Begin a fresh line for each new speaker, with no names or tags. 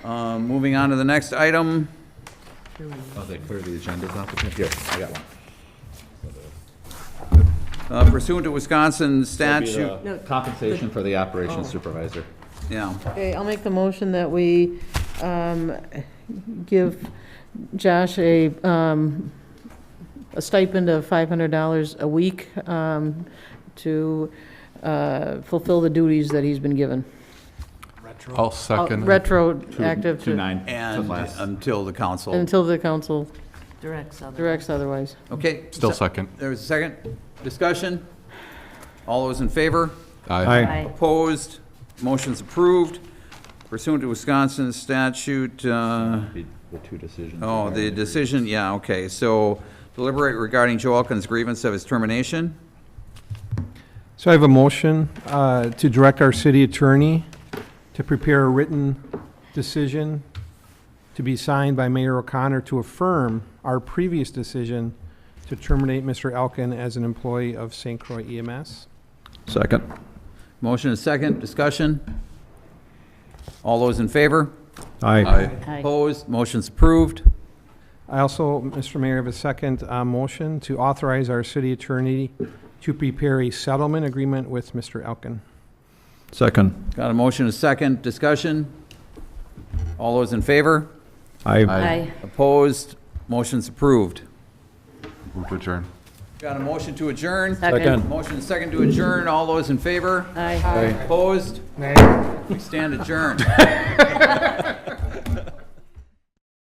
Um, Moving on to the next item.
Oh, they clear the agendas off the, here, I got one.
Uh, Pursuant to Wisconsin statute,
Shoot, Compensation for the operations supervisor.
yeah.
Okay, I'll make the motion that we um, give Josh a, um, a stipend of $500 a week um, to uh, fulfill the duties that he's been given.
I'll
Uh,
second.
Retroactive
Two
to,
nine.
And
last.
until the council.
until the council
Directs other.
directs otherwise.
Okay.
Still
se-
second.
There was a second. Discussion? All those in favor?
Aye.
Aye.
Opposed? Motion's approved. Pursuant to Wisconsin statute, uh,
The the two decisions.
oh,
are-
the decision, yeah, okay. So deliberate regarding Joe Elkins' grievance of his termination.
So I have a motion uh, to direct our city attorney to prepare a written decision to be signed by Mayor O'Connor to affirm our previous decision to terminate Mr. Elkin as an employee of St. Croix E EMS.
Second. Motion is second. Discussion? All those in favor?
Aye.
Opposed? Motion's approved.
I also, Mr. Mayor, have a second uh, motion to authorize our city attorney to prepare a settlement agreement with Mr. Elkin.
Second.
Got a motion is second. Discussion? All those in favor?
Aye.
Opposed? Motion's approved.
Move to adjourn.
Got a motion to adjourn?
Second.
Motion is second to adjourn. All those in favor?
Aye.
Opposed? We stand adjourned.